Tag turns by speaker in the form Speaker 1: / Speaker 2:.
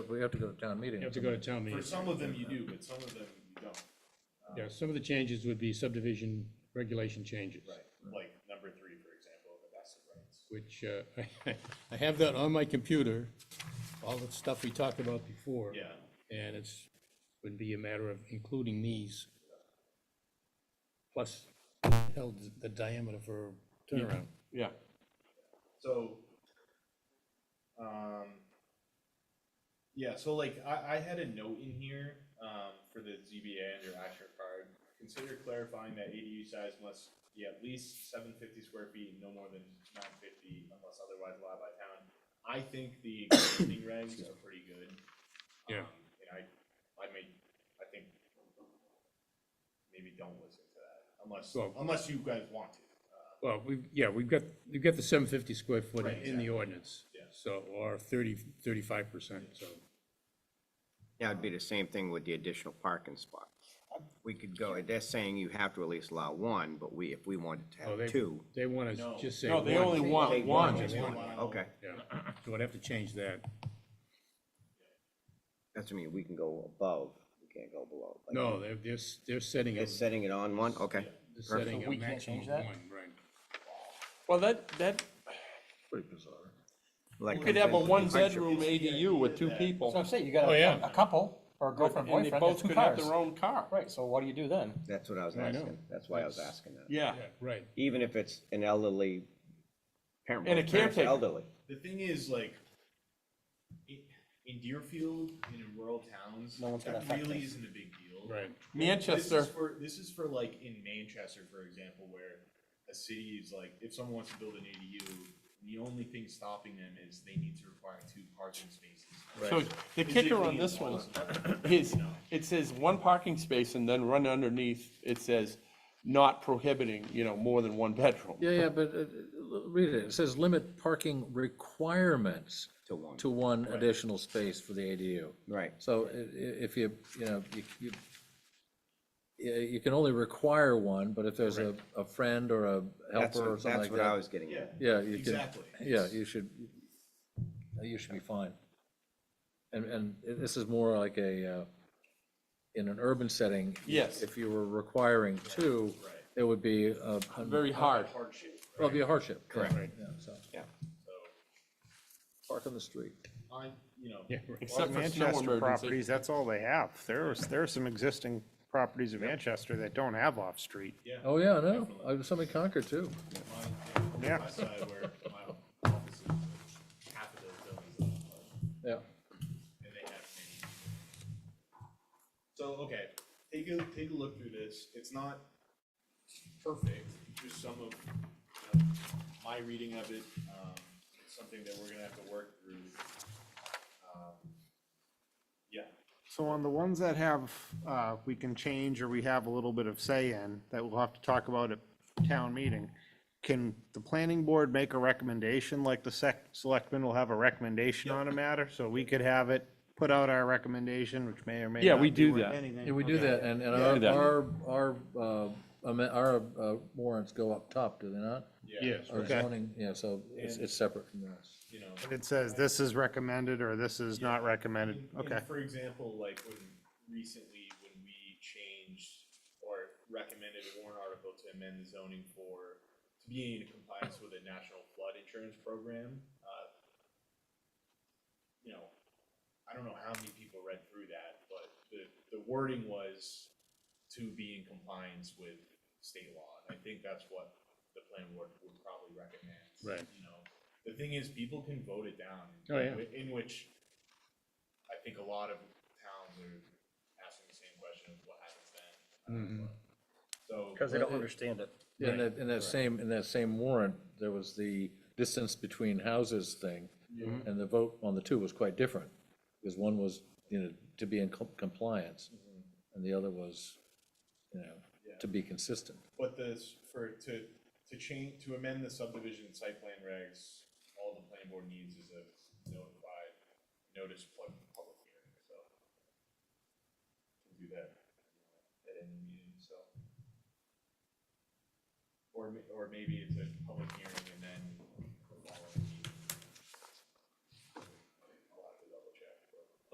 Speaker 1: we have to go to town meeting.
Speaker 2: You have to go to town
Speaker 3: For
Speaker 2: meeting.
Speaker 3: some of them you do, but some of them you don't.
Speaker 2: Yeah, some of the changes would be subdivision regulation changes.
Speaker 3: Like number three, for example, the vested rights.
Speaker 2: Which, uh, I have that on my computer, all the stuff we talked about before.
Speaker 3: Yeah.
Speaker 2: And it's, would be a matter of including these. Plus, held the diameter for turnaround.
Speaker 4: Yeah.
Speaker 3: So, um, yeah, so like, I, I had a note in here, um, for the ZBA under action required. Consider clarifying that ADU size must be at least seven fifty square feet and no more than nine fifty unless otherwise allowed by town. I think the existing regs are pretty good.
Speaker 2: Yeah.
Speaker 3: Um, And I, I mean, I think maybe don't listen to that unless,
Speaker 2: Well-
Speaker 3: unless you guys want to. Uh,
Speaker 2: Well, we've, yeah, we've got, we've got the seven fifty square foot
Speaker 3: Right,
Speaker 2: in
Speaker 3: exactly.
Speaker 2: the ordinance.
Speaker 3: Yeah.
Speaker 2: So, or thirty, thirty-five percent, so.
Speaker 5: Yeah, it'd be the same thing with the additional parking spot. We could go, they're saying you have to at least allow one, but we, if we wanted to
Speaker 2: Oh, they-
Speaker 5: have two.
Speaker 2: They want to
Speaker 3: No.
Speaker 2: just say
Speaker 4: No,
Speaker 2: one.
Speaker 4: they only want
Speaker 5: Take
Speaker 4: one.
Speaker 5: just
Speaker 3: Only
Speaker 5: one,
Speaker 3: one.
Speaker 5: okay.
Speaker 2: Yeah, so I'd have to change that.
Speaker 5: That's what I mean, we can go above, we can't go below. but
Speaker 2: No,
Speaker 4: um,
Speaker 2: they're, they're, s- they're setting a,
Speaker 5: It's
Speaker 2: they're
Speaker 5: setting it on one, okay.
Speaker 2: setting
Speaker 4: So
Speaker 2: a
Speaker 4: we can't
Speaker 2: maximum
Speaker 4: change
Speaker 2: of
Speaker 4: that?
Speaker 2: one, right.
Speaker 4: Well, that, that,
Speaker 1: Pretty bizarre.
Speaker 5: Like
Speaker 4: you could have a
Speaker 5: I'm saying,
Speaker 4: one-bedroom ADU with two people.
Speaker 6: So I'm saying, you got
Speaker 2: Oh, yeah.
Speaker 6: a, a couple, or a girlfriend,
Speaker 4: And they
Speaker 6: boyfriend, and
Speaker 4: both
Speaker 6: two
Speaker 4: could have
Speaker 6: cars.
Speaker 4: their own car.
Speaker 6: Right, so what do you do then?
Speaker 5: That's what I was
Speaker 2: I know.
Speaker 5: asking, that's why I was asking that.
Speaker 4: Yeah.
Speaker 2: Yeah, Right,
Speaker 5: Even if it's an elderly parent.
Speaker 4: And a
Speaker 5: both parents are
Speaker 4: caretaker.
Speaker 5: Elderly.
Speaker 3: The thing is, like, in, in Deerfield and in rural towns,
Speaker 6: No one's gonna
Speaker 3: that
Speaker 6: affect
Speaker 3: really
Speaker 6: us.
Speaker 3: isn't a big deal.
Speaker 2: right.
Speaker 4: Manchester,
Speaker 3: This is for, this is for like in Manchester, for example, where a city is like, if someone wants to build an ADU, the only thing stopping them is they need to require two parking spaces.
Speaker 4: so the kicker on
Speaker 3: Physically
Speaker 4: this one
Speaker 3: impossible.
Speaker 4: is, it says one parking space and then run underneath, it says not prohibiting, you know, more than one bedroom.
Speaker 1: Yeah, yeah, but uh, l- read it. It says limit parking requirements
Speaker 5: To one.
Speaker 1: to one additional space for the ADU.
Speaker 5: Right.
Speaker 1: So i- i- if you, you know, you, you, yeah, you can only require one, but if there's a, a friend or a
Speaker 5: That's,
Speaker 1: helper or
Speaker 5: what- that's
Speaker 1: something like
Speaker 5: what I
Speaker 1: that.
Speaker 5: was getting
Speaker 3: Yeah.
Speaker 5: at.
Speaker 1: Yeah, you can,
Speaker 3: Exactly.
Speaker 1: yeah, you should, you should be fine. And, and this is more like a, uh, in an urban setting.
Speaker 4: Yes.
Speaker 1: If you were requiring two,
Speaker 3: Right.
Speaker 1: it would be a. a-
Speaker 4: Very hard.
Speaker 3: Hardship,
Speaker 1: Well, it'd be a hardship. yeah,
Speaker 5: Correct.
Speaker 1: Yeah, so,
Speaker 5: Yeah.
Speaker 3: so,
Speaker 1: park on the street.
Speaker 3: I, you know.
Speaker 2: Yeah, right.
Speaker 4: Except for snow
Speaker 7: Manchester
Speaker 4: emergency.
Speaker 7: properties, that's all they have. There's, there are some existing properties of Manchester that don't have off-street.
Speaker 3: Yeah.
Speaker 1: Oh, yeah, I know. I was somebody Concord too.
Speaker 3: my-
Speaker 7: Yeah.
Speaker 3: My side where my office is, like, half of those buildings are apartments.
Speaker 1: Yeah.
Speaker 3: and they have many. So, okay, take a, take a look through this, it's not perfect, just some of, you know, my reading of it, um, it's something that we're gonna have to work through. Um, Yeah,
Speaker 7: So on the ones that have, uh, we can change or we have a little bit of say in, that we'll have to talk about at town meeting, can the planning board make a recommendation, like the sec, selectmen will have a recommendation on a matter? So we could have it, put out our recommendation, which may or may
Speaker 4: Yeah,
Speaker 7: not
Speaker 4: we
Speaker 7: be
Speaker 4: do
Speaker 7: worth
Speaker 4: that.
Speaker 7: anything.
Speaker 1: Yeah, we do
Speaker 7: Okay.
Speaker 1: that, and, and
Speaker 4: do that.
Speaker 1: our, our, our, uh, amen- our uh, warrants go up top, do they not?
Speaker 3: yeah,
Speaker 2: Yes,
Speaker 1: Or
Speaker 2: right.
Speaker 7: Okay.
Speaker 1: zoning, yeah, so it's, it's separate from us.
Speaker 3: you know.
Speaker 7: It says this is recommended or this is not recommended.
Speaker 3: And- and
Speaker 7: Okay.
Speaker 3: For example, like when recently, when we changed or recommended a warrant article to amend the zoning for, to be in compliance with the National Flood Insurance Program, uh, you know, I don't know how many people read through that, but the, the wording was to be in compliance with state law. And I think that's what the plan board would probably recommend.
Speaker 2: Right.
Speaker 3: You know, the thing is, people can vote it down.
Speaker 2: Oh, yeah.
Speaker 3: In which I think a lot of towns are asking the same question of what happens then.
Speaker 2: Mhm.
Speaker 3: So.
Speaker 1: they don't
Speaker 6: understand it.
Speaker 1: In that, in that same, in that same warrant, there was the distance between houses thing, and the vote on the two was quite different, because one was, you know, to be in com- compliance, and the other was, you know, to be consistent.
Speaker 3: But this, for, to, to change, to amend the subdivision site plan regs, all the planning board needs is a notified, notice plug public hearing, so. Can do that at any meeting, so. Or, ma- or maybe it's a public